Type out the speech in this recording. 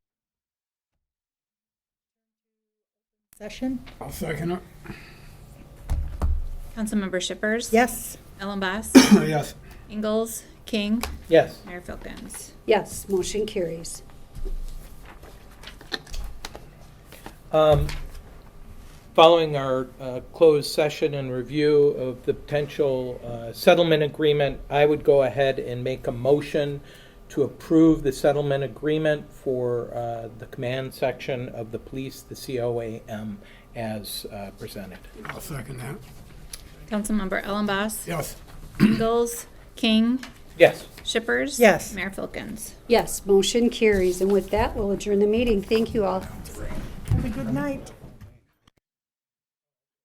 session? I'll second it. Councilmember Shippers. Yes. Ellenboss. Yes. Ingalls. King. Yes. Mayor Philkins. Yes, motion carries. Um, Following our uh, closed session and review of the potential uh, settlement agreement, I would go ahead and make a motion to approve the settlement agreement for uh, the command section of the police, the COAM, as uh, presented. I'll second that. Councilmember Ellenboss. Yes. Ingalls. King. Yes. Shippers. Yes. Mayor Philkins. Yes, motion carries. And with that, we'll adjourn the meeting. Thank you all. Have a good night.